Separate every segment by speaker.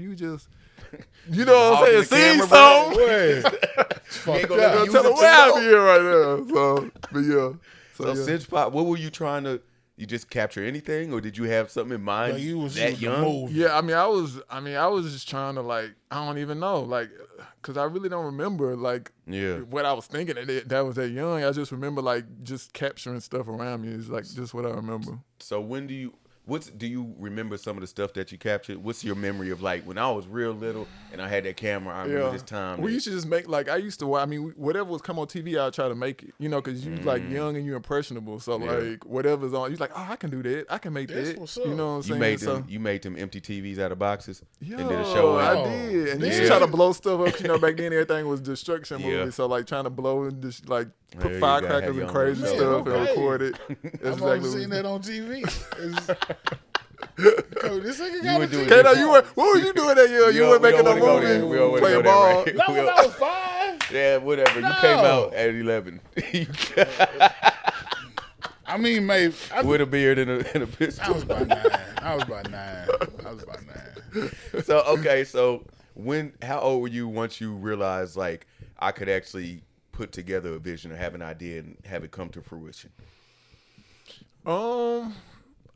Speaker 1: you just, you know what I'm saying, sing something.
Speaker 2: Wait. Fuck
Speaker 3: gonna let
Speaker 2: that.
Speaker 1: Yo,
Speaker 3: Use
Speaker 1: tell them
Speaker 3: it to
Speaker 1: what happened
Speaker 3: know.
Speaker 1: here right now. So, but yeah. So,
Speaker 3: So
Speaker 1: yeah.
Speaker 3: Cinch Pop, what were you trying to? You just capture anything, or did you have something in mind?
Speaker 2: Like, you was
Speaker 3: that
Speaker 2: using the
Speaker 3: young.
Speaker 2: move.
Speaker 1: Yeah, I mean, I was, I mean, I was just trying to like, I don't even know, like, cause I really don't remember like
Speaker 3: Yeah.
Speaker 1: what I was thinking at that, that was that young. I just remember like just capturing stuff around me is like just what I remember.
Speaker 3: So when do you? What's do you remember some of the stuff that you captured? What's your memory of like when I was real little and I had that camera? I remember this time.
Speaker 1: We
Speaker 3: that-
Speaker 1: used to just make like I used to. wa- I mean, whatever was come on TV, I'd try to make it. You know, because you like
Speaker 3: Mm.
Speaker 1: young and you're impressionable. So like whatever's on, you're like, oh, I can do that. I can make
Speaker 2: That's
Speaker 1: that.
Speaker 2: what's
Speaker 1: You
Speaker 2: up.
Speaker 1: know what I'm
Speaker 3: you
Speaker 1: saying?
Speaker 3: made
Speaker 1: so,
Speaker 3: them. You made them empty TVs out of boxes
Speaker 1: Yeah,
Speaker 3: and did a show.
Speaker 1: I
Speaker 3: and-
Speaker 1: did. And you used
Speaker 3: Yeah.
Speaker 1: to try to blow stuff up. You know, back then everything was destruction
Speaker 3: Yeah.
Speaker 1: movies. So like trying to blow and just like
Speaker 3: There
Speaker 1: put
Speaker 3: you go, have
Speaker 1: firecrackers
Speaker 3: your
Speaker 1: and
Speaker 3: own
Speaker 1: crazy
Speaker 2: little
Speaker 1: stuff and
Speaker 2: show.
Speaker 1: record it.
Speaker 2: I've
Speaker 1: That's
Speaker 2: only
Speaker 1: exactly. what
Speaker 2: seen that on TV. It's- Yo, this nigga
Speaker 3: You
Speaker 2: got
Speaker 3: were
Speaker 2: a
Speaker 3: doing
Speaker 2: TV.
Speaker 1: Kato, you were what were you doing that year? You
Speaker 3: Yo,
Speaker 1: weren't
Speaker 3: we
Speaker 1: making
Speaker 3: don't
Speaker 1: no
Speaker 3: wanna go there.
Speaker 1: movie.
Speaker 3: We don't wanna
Speaker 1: Playing
Speaker 3: go there,
Speaker 1: ball.
Speaker 3: right?
Speaker 2: Not when I was five.
Speaker 3: Yeah, whatever. You came
Speaker 2: No.
Speaker 3: out at eleven
Speaker 2: I mean, maybe I,
Speaker 3: with a beard and a, and a pistol.
Speaker 2: I was about nine. I was about nine. I was about nine.
Speaker 3: so okay, so when how old were you once you realized like I could actually put together a vision or have an idea and have it come to fruition?
Speaker 1: Um,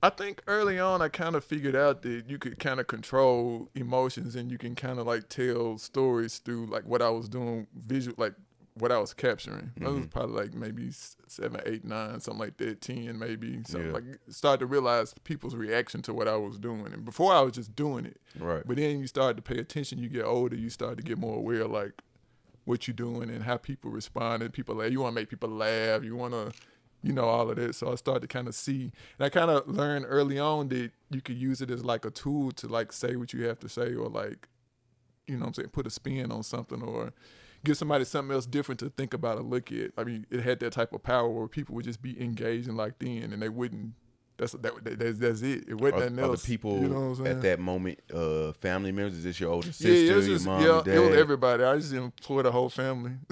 Speaker 1: I think early on I kind of figured out that you could kind of control emotions and you can kind of like tell stories through like what I was doing visual, like what I was capturing. I was probably like maybe s- seven, eight, nine, something like that, ten maybe. So
Speaker 3: Yeah.
Speaker 1: like started to realize people's reaction to what I was doing, and before I was just doing it.
Speaker 3: Right.
Speaker 1: But then you start to pay attention. You get older. You start to get more aware, of, like what you're doing and how people respond and people laugh. You want to make people laugh. You want to, you know, all of that. So I started to kind of see, and I kind of learned early on that you could use it as like a tool to like say what you have to say or like, you know, what I'm saying, put a spin on something or give somebody something else different to think about or look at. I mean, it had that type of power where people would just be engaged and locked in, and they wouldn't. That's that, that, that's, that's it. It wasn't
Speaker 3: Are,
Speaker 1: nothing
Speaker 3: are
Speaker 1: else.
Speaker 3: the people
Speaker 1: you know what I'm saying?
Speaker 3: at that moment uh, family members? Is this your older sister,
Speaker 1: Yeah, yeah, it was
Speaker 3: your
Speaker 1: just,
Speaker 3: mom,
Speaker 1: yeah,
Speaker 3: dad?
Speaker 1: it was everybody. I just employed the whole family.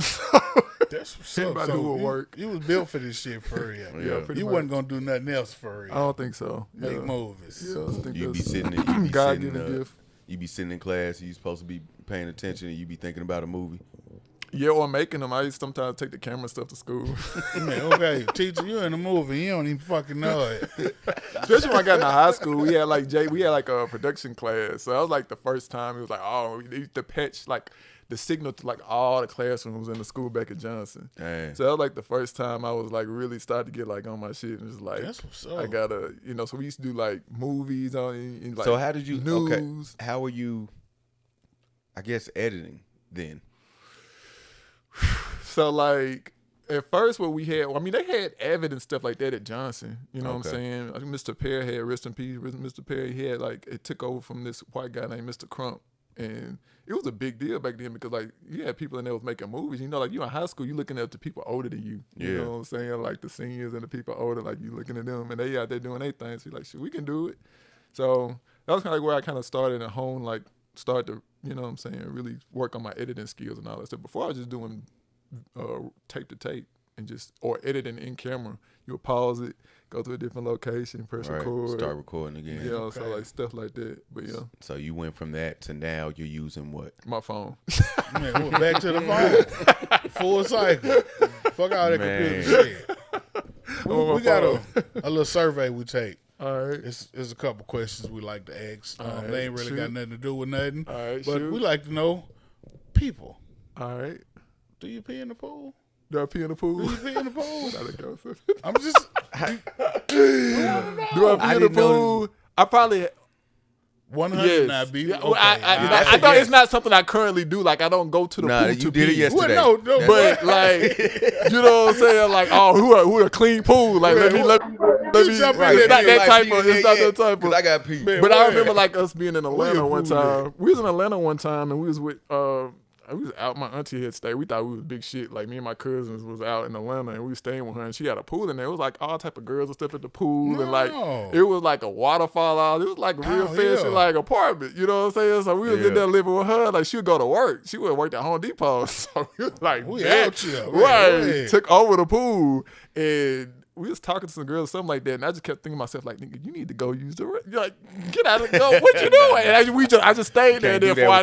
Speaker 2: That's what's up.
Speaker 1: Anybody
Speaker 2: So
Speaker 1: who will
Speaker 2: you-
Speaker 1: work.
Speaker 2: You was built for this shit for real.
Speaker 3: Yeah,
Speaker 1: pretty
Speaker 2: you
Speaker 1: much.
Speaker 2: wasn't gonna do nothing else for
Speaker 1: I
Speaker 2: real.
Speaker 1: don't think so. Oh, Yeah,
Speaker 2: Make movies.
Speaker 1: yeah I think
Speaker 3: You be
Speaker 1: that's-
Speaker 3: sitting, in- you be
Speaker 1: God
Speaker 3: sitting,
Speaker 1: given
Speaker 3: uh,
Speaker 1: gift.
Speaker 3: you be sitting in class. You supposed to be paying attention, and you be thinking about a movie.
Speaker 1: Yeah, or making them. I used to sometimes take the camera stuff to school,
Speaker 2: Man, okay, teacher, you in a movie. You don't even fucking know it.
Speaker 1: especially when I got into high school. We had like Jay, we had like a production class, so that was like the first time it was like, oh, they used to patch like the signal to like all the classrooms in the school back at Johnson.
Speaker 3: Dang.
Speaker 1: So that was like the first time I was like really started to get like on my shit and just like
Speaker 2: That's what's
Speaker 1: I
Speaker 2: up.
Speaker 1: gotta you know. So we used to do like movies on and, like
Speaker 3: so how did you?
Speaker 1: news.
Speaker 3: Okay, how were you? I guess editing then.
Speaker 1: So like at first what we had, well, I mean they had Avid and stuff like that at Johnson. You know what
Speaker 3: Okay.
Speaker 1: I'm saying? Like, Mr. Perry had rest in peace. Mr. Perry he had like it took over from this white guy named Mr. Crump. And it was a big deal back then because like you had people in there was making movies. You know, like you in high school, you looking up to people older than you. You
Speaker 3: Yeah.
Speaker 1: know what I'm saying? Like the seniors and the people older, like you looking at them and they out there doing their things. So you're like, shit, we can do it. So that was kind of like where I kind of started and honed, like start to, you know what I'm saying, really work on my editing skills and all that stuff. Before I was just doing uh, tape to tape and just, or editing in camera. You would pause it, go to a different location, press
Speaker 3: All right,
Speaker 1: record.
Speaker 3: start recording again.
Speaker 1: you know, so like stuff like that. But yeah,
Speaker 3: So you went from that to now you're using what?
Speaker 1: my phone.
Speaker 2: Man, we're back to the phone. Full cycle. Fuck all that
Speaker 3: Man.
Speaker 2: computer shit. We,
Speaker 1: on my
Speaker 2: we got a,
Speaker 1: phone.
Speaker 2: a little survey we take.
Speaker 1: all right.
Speaker 2: It's, it's a couple questions we like to ask. Um,
Speaker 1: Alright,
Speaker 2: they ain't really
Speaker 1: shoot.
Speaker 2: got nothing to do with nothing.
Speaker 1: Alright,
Speaker 2: but
Speaker 1: shoot.
Speaker 2: we like to know people.
Speaker 1: All right.
Speaker 2: Do you pee in the pool?
Speaker 1: Do I pee in the pool?
Speaker 2: Do you pee in the pool?
Speaker 1: I let go.
Speaker 2: I'm just
Speaker 1: Do I pee
Speaker 3: I
Speaker 1: in the
Speaker 3: didn't know
Speaker 1: pool? I probably
Speaker 2: 100
Speaker 1: yes.
Speaker 2: now, B.
Speaker 1: Yeah,
Speaker 2: okay.
Speaker 1: well, I, I,
Speaker 2: all
Speaker 1: I,
Speaker 2: right.
Speaker 1: I know it's not something I currently do. Like I don't go to the
Speaker 3: Nah,
Speaker 1: pool
Speaker 3: you
Speaker 1: to
Speaker 3: did
Speaker 1: pee.
Speaker 3: it yesterday.
Speaker 2: Well, no, no,
Speaker 3: That's-
Speaker 1: But like, you know what I'm saying? Like, oh, who a, who a clean pool? Like, let me let me. Let me
Speaker 2: jump in
Speaker 1: it's
Speaker 2: there,
Speaker 1: not that
Speaker 3: Like,
Speaker 1: type
Speaker 3: yeah,
Speaker 1: of. It's
Speaker 3: yeah,
Speaker 1: not
Speaker 3: yeah,
Speaker 1: that type
Speaker 3: 'cause
Speaker 1: of.
Speaker 3: I got pee.
Speaker 1: But I
Speaker 2: where?
Speaker 1: remember like us being in Atlanta one
Speaker 2: pool at?
Speaker 1: time. We was in Atlanta one time and we was with uh we was out my auntie had stayed. We thought we was big shit. Like me and my cousins was out in Atlanta and we was staying with her and she had a pool in there. It was like all type of girls and stuff at the pool and like
Speaker 2: No.
Speaker 1: it was like a waterfall out. It was like real
Speaker 2: Oh,
Speaker 1: fancy
Speaker 2: yeah.
Speaker 1: like apartment. You know what I'm saying? So we was
Speaker 3: Yeah.
Speaker 1: in there living with her. Like she would go to work. She would work at Home Depot. So we was like
Speaker 2: We
Speaker 1: "Man,
Speaker 2: out here. We
Speaker 1: Right.
Speaker 2: out here."
Speaker 1: Took over the pool and we was talking to some girls, something like that, and I just kept thinking to myself, like, nigga, you need to go use the re- like, get out of go, what you doing? And I, we just, I just stayed there,
Speaker 3: Can't do
Speaker 1: there
Speaker 3: that
Speaker 1: before I